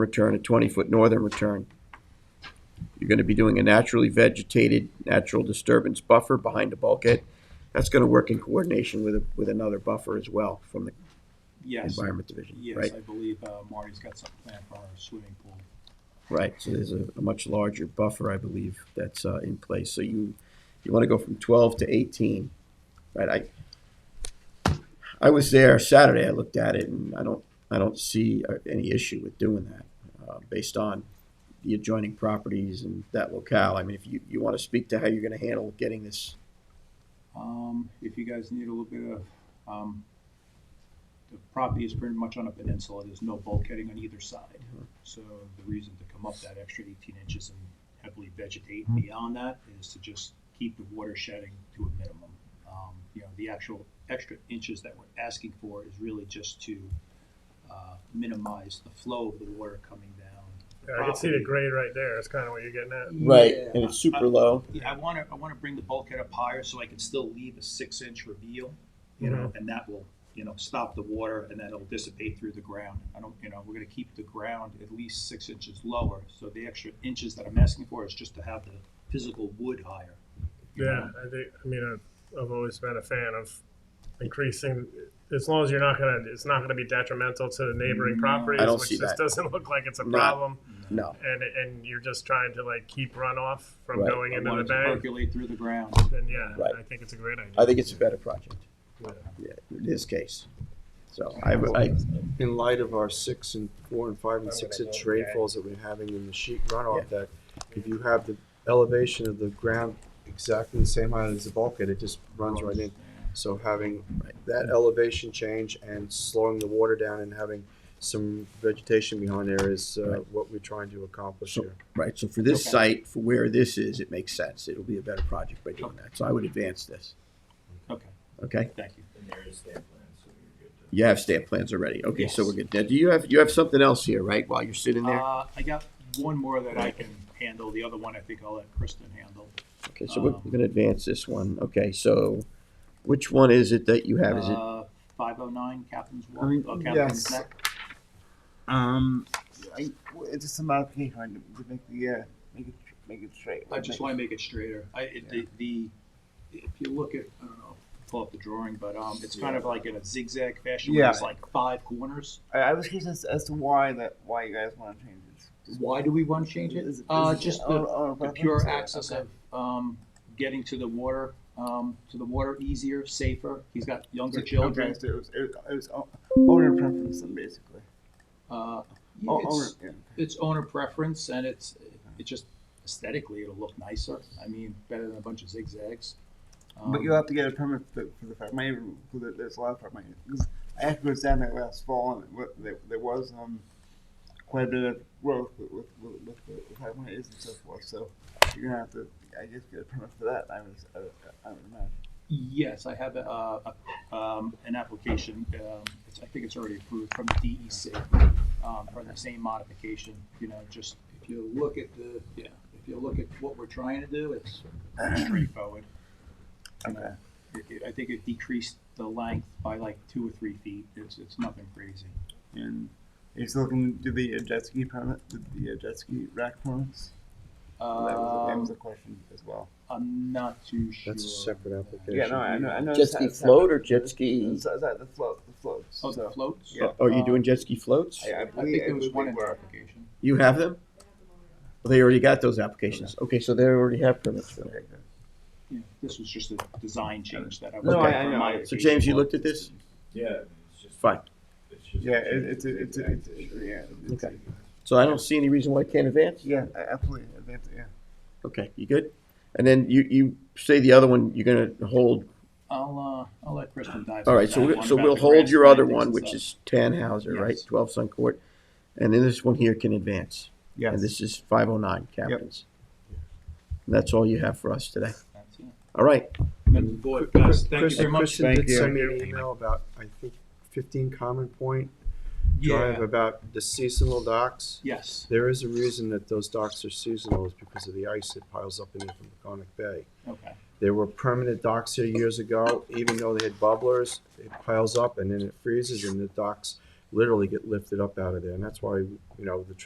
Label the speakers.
Speaker 1: return, a twenty-foot northern return. You're gonna be doing a naturally vegetated, natural disturbance buffer behind the bulkhead. That's gonna work in coordination with, a- with another buffer as well from the
Speaker 2: Yes,
Speaker 1: Environment Division,
Speaker 2: yes,
Speaker 1: right?
Speaker 2: I believe uh, Marty's got something planned for our swimming pool.
Speaker 1: Right, so there's a, a much larger buffer, I believe, that's, uh, in place, so you, you wanna go from twelve to eighteen, right, I, I was there Saturday, I looked at it, and I don't, I don't see uh, any issue with doing that, uh, based on the adjoining properties and that locale, I mean, if you, you wanna speak to how you're gonna handle getting this,
Speaker 2: Um, If you guys need a little bit of, um, the property is pretty much on a peninsula, there's no bulkheading on either side.
Speaker 1: Mm-hmm.
Speaker 2: So the reason to come up that extra eighteen inches and heavily vegetate
Speaker 1: Mm-hmm.
Speaker 2: beyond that is to just keep the water shedding to a minimum. Um, You know, the actual extra inches that we're asking for is really just to uh, minimize the flow of the water coming down. the
Speaker 3: Yeah, I can see the
Speaker 2: property.
Speaker 3: grade right there. It's kind of what you're getting at.
Speaker 1: right,
Speaker 2: Yeah.
Speaker 1: and it's super low,
Speaker 2: Yeah, I want to, I want to bring the bulkhead up higher so I can still leave a six inch reveal, you
Speaker 3: Mm-hmm.
Speaker 2: know, and that will, you know, stop the water and then it'll dissipate through the ground. I don't, you know, we're going to keep the ground at least six inches lower. So the extra inches that I'm asking for is just to have the physical wood higher. you
Speaker 3: Yeah,
Speaker 2: know?
Speaker 3: I think. I mean, I've, I've always been a fan of increasing. As long as you're not gonna, it's not gonna be detrimental to the neighboring
Speaker 2: No.
Speaker 3: properties,
Speaker 1: Mm, I don't
Speaker 3: which
Speaker 1: see
Speaker 3: this
Speaker 1: that.
Speaker 3: doesn't look like it's a
Speaker 1: Not-
Speaker 3: problem.
Speaker 1: no,
Speaker 3: And and you're just trying to like keep runoff from
Speaker 1: Right.
Speaker 3: going
Speaker 2: I
Speaker 3: into
Speaker 2: want
Speaker 3: the
Speaker 2: it to
Speaker 3: bank.
Speaker 2: Percolate through the ground.
Speaker 3: And yeah,
Speaker 1: Right.
Speaker 3: I think it's a great idea.
Speaker 1: I think it's a better project,
Speaker 3: Yeah.
Speaker 1: yeah, in this case, so I, I,
Speaker 4: in light of our six and four and five and
Speaker 3: I'm
Speaker 4: six
Speaker 3: gonna
Speaker 4: inch
Speaker 3: go with that.
Speaker 4: rainfalls that we're having in the sheet runoff deck, if you have the elevation of the ground exactly the same height as the bulkhead, it just runs right in. So having that elevation change and slowing the water down and having some vegetation behind there is uh,
Speaker 1: Right.
Speaker 4: what we're trying to accomplish
Speaker 1: So-
Speaker 4: here.
Speaker 1: Right, so for this
Speaker 2: Okay.
Speaker 1: site, for where this is, it makes sense. It'll be a better project by doing that. So I would advance this,
Speaker 2: Okay,
Speaker 1: okay?
Speaker 2: thank you.
Speaker 5: And there is stamp plan, so you're good to.
Speaker 1: You have stamp plans already. Okay, so
Speaker 2: Yes.
Speaker 1: we're good. Now, do you have, you have something else here, right, while you're sitting there?
Speaker 2: Uh, I got one more that I can handle. The other one I think I'll let Kristen handle.
Speaker 1: Okay, so we're
Speaker 2: um,
Speaker 1: we're gonna advance this one. Okay, so which one is it that you have? Is it,
Speaker 2: Five oh nine Captain's Walk,
Speaker 6: Um,
Speaker 2: uh, Captain's
Speaker 6: yes.
Speaker 2: Neck.
Speaker 6: Um, I, well, it's just a modification right, to make the uh, make it make it straight.
Speaker 2: I just want to make it straighter. I, it- the, the, if you look at, I don't know, pull up the drawing, but, um, it's kind of like in a zigzag fashion where there's
Speaker 6: Yeah.
Speaker 2: like five corners.
Speaker 6: I, I was curious as, as to why that why you guys want to change this.
Speaker 2: Why do we want to change
Speaker 6: Is- is
Speaker 2: Uh,
Speaker 6: it
Speaker 2: just
Speaker 6: on-
Speaker 2: the,
Speaker 6: on a
Speaker 2: the
Speaker 6: oh, preference
Speaker 2: pure
Speaker 6: or-
Speaker 2: access
Speaker 6: okay.
Speaker 2: of, um, getting to the water, um, to the water easier, safer. He's got younger
Speaker 6: Okay,
Speaker 2: children.
Speaker 6: so it was, it was, it was o- owner preference, then basically.
Speaker 2: Uh,
Speaker 6: O- owner,
Speaker 2: it's,
Speaker 6: yeah.
Speaker 2: it's owner preference and it's, it just aesthetically, it'll look nicer. I mean, better than a bunch of zigzags.
Speaker 6: but
Speaker 2: Um,
Speaker 6: you'll have to get a permit for, for the fact. My neighbor, who there- there's a lot of farm. Because I actually was down there last fall, and wa- there, there was um quite a bit of growth with with with, with, with, with farm and so forth. So you're gonna have to, I guess, get a permit for that. I was, I, I- I would imagine.
Speaker 2: Yes, I have a, a, um, an application, um, it's, I think it's already approved from the DEC, um, for the same modification, you know, just, if you look at the, yeah, if you look at what we're trying to do, it's straightforward. You know,
Speaker 6: Okay.
Speaker 2: it- it- I think it decreased the length by like two or three feet, it's, it's nothing crazy.
Speaker 6: And you're still looking to do the uh, jet ski permit, the, the uh, jet ski rack permits. that, was, that was a
Speaker 2: Um,
Speaker 6: question as well.
Speaker 2: I'm not too sure.
Speaker 4: That's a separate application.
Speaker 6: Yeah, no, I know, I know.
Speaker 1: Jet
Speaker 6: it's
Speaker 1: ski
Speaker 6: not- it's not-
Speaker 1: float or jet ski?
Speaker 6: It's, it's not the float, the float.
Speaker 2: Oh, the floats?
Speaker 6: Yeah.
Speaker 1: are you doing jet ski floats?
Speaker 6: I, I
Speaker 2: I think
Speaker 6: believe
Speaker 2: there was one in the
Speaker 6: were.
Speaker 2: application.
Speaker 1: You have them? Well, They already got those applications. Okay, so they already have permits for that.
Speaker 6: Okay, good.
Speaker 2: Yeah, This was just a design change that I.
Speaker 6: No,
Speaker 1: I-
Speaker 6: I know.
Speaker 1: So James, you looked at this?
Speaker 5: Yeah, I mean, it's just.
Speaker 1: Fine.
Speaker 5: It's just.
Speaker 6: Yeah, it, it's a, it's a, it's a, yeah. It's
Speaker 1: Okay. So I don't see any reason why it can't advance?
Speaker 6: yeah, a- absolutely. That's, yeah.
Speaker 1: Okay, you good? And then you, you say the other one, you're gonna hold,
Speaker 2: I'll, uh, I'll let Kristen dive.
Speaker 1: all
Speaker 2: into
Speaker 1: right, so,
Speaker 2: that
Speaker 1: we're-
Speaker 2: one
Speaker 1: so
Speaker 2: about
Speaker 1: we'll
Speaker 2: the
Speaker 1: hold your
Speaker 2: grass
Speaker 1: other
Speaker 2: plantings
Speaker 1: one,
Speaker 2: and
Speaker 1: which
Speaker 2: stuff.
Speaker 1: is Tannhauser, right?
Speaker 2: Yes.
Speaker 1: Twelve Sun Court. And then this one here can advance.
Speaker 6: Yes.
Speaker 1: And this is five oh nine captains. And that's all you have for us today.
Speaker 2: That's it.
Speaker 1: All right,
Speaker 2: Members of the board, guys, thank you
Speaker 4: Chris-
Speaker 2: very much.
Speaker 4: Kristen did
Speaker 6: you.
Speaker 4: send me an email about, I think, fifteen Common Point Drive
Speaker 2: Yeah,
Speaker 4: about the seasonal docks.
Speaker 2: yes,
Speaker 4: There is a reason that those docks are seasonal is because of the ice that piles up in there from Peconic Bay.
Speaker 2: okay,
Speaker 4: There were permanent docks here years ago, even though they had bubblers, it piles up and then it freezes and the docks literally get lifted up out of there. And that's why, you know, the